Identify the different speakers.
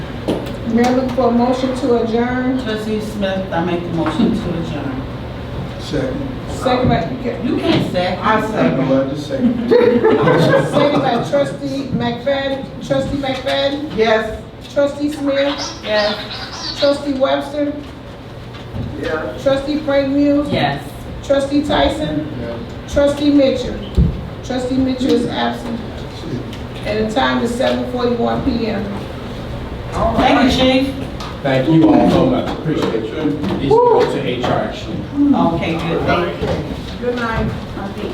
Speaker 1: Mayor look for a motion to adjourn.
Speaker 2: Trustee Smith, I make the motion to adjourn.
Speaker 3: Second.
Speaker 1: Second by,
Speaker 2: You can't say. I
Speaker 3: No, I just second.
Speaker 1: second by trustee McFadden, trustee McFadden,
Speaker 2: Yes.
Speaker 1: trustee Smith,
Speaker 2: Yes.
Speaker 1: trustee Webster,
Speaker 3: Yeah.
Speaker 1: trustee Frank Muse,
Speaker 2: Yes.
Speaker 1: trustee Tyson, trustee Mitchell. Trustee Mitchell is absent, and the time is seven forty-one PM.
Speaker 2: Thank you, chief.
Speaker 4: Thank you all so much, appreciate you. These go to HR actually.
Speaker 2: Okay, good, thank you.
Speaker 1: Good night.